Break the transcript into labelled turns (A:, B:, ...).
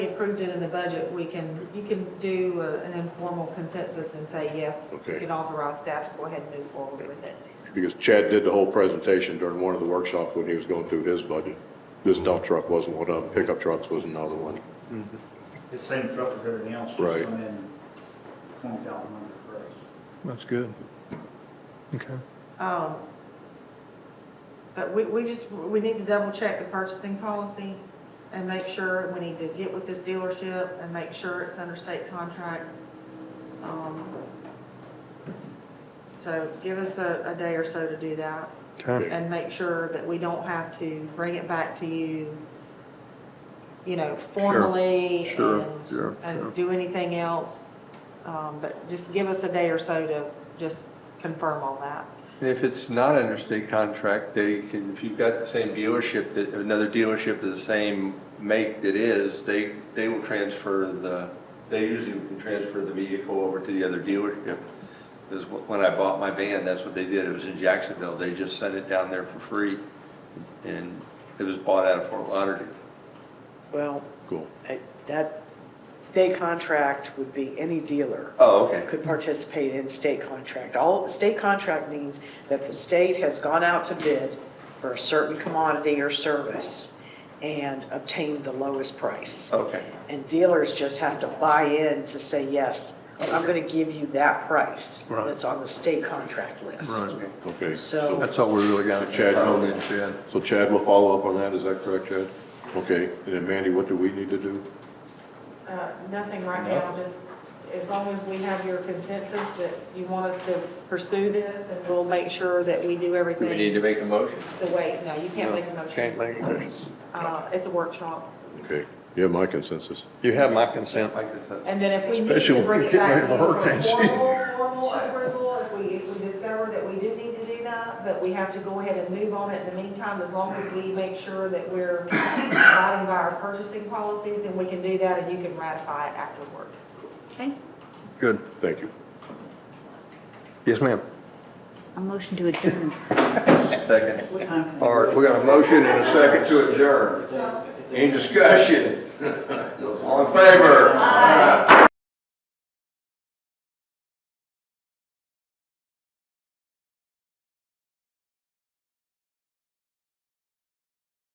A: approved it in the budget, we can, you can do uh, an informal consensus and say, yes,
B: Okay.
A: you can authorize staff to go ahead and move forward with it.
B: Because Chad did the whole presentation during one of the workshops when he was going through his budget. This dump truck wasn't one of them, pickup trucks was another one.
C: It's same truck as everything else,
B: Right.
C: just come in twenty thousand under price.
D: That's good. Okay.
A: Um, But we, we just, we need to double check the purchasing policy and make sure, we need to get with this dealership and make sure it's under state contract. Um, So give us a, a day or so to do that
D: Okay.
A: and make sure that we don't have to bring it back to you, you know, formally
D: sure,
A: and,
D: sure,
A: and do anything else. Um, But just give us a day or so to just confirm all that.
E: And if it's not under state contract, they can, if you've got the same dealership, that another dealership of the same make that is, they, they will transfer the, they usually can transfer the vehicle over to the other dealership. Because when I bought my van, that's what they did. It was in Jacksonville. They just sent it down there for free. And it was bought out of Fort Lauderdale.
F: Well,
B: Cool.
F: I- that state contract would be any dealer
E: Oh, okay.
F: could participate in state contract. All, state contract means that the state has gone out to bid for a certain commodity or service and obtained the lowest price.
E: Okay.
F: And dealers just have to buy in to say, yes, I'm going to give you that price
D: Right.
F: that's on the state contract list.
D: Right.
B: Okay.
F: So
E: That's all we really got.
B: Chad, no.
E: Probably Chad.
B: So Chad will follow up on that, is that correct, Chad? Okay, and then Mandy, what do we need to do?
A: Uh, Nothing right now, just as long as we have your consensus that you want us to pursue this, then we'll make sure that we do
E: Do we need
A: everything
E: to make a motion?
A: the way, no, you can't make a motion.
D: Can't make a motion.
A: Uh, It's a workshop.
B: Okay, you have my consensus.
D: You have my consent.
E: Like this, huh?
A: And then if we need
D: Especially
A: to
D: when
A: bring
D: we're
A: it
D: getting
A: back
D: ready
A: in
D: for
A: for
D: hurricane season.
A: formal, formal approval, if we, if we discover that we do need to do that, but we have to go ahead and move on it in the meantime, as long as we make sure that we're abiding by our purchasing policies, then we can do that and you can ratify it afterward.
G: Okay,
D: Good.
B: Thank you.
D: Yes, ma'am.
G: a motion to adjourn.
E: Second.
D: All right,
E: We got a motion and a second to adjourn. Any discussion? All in favor?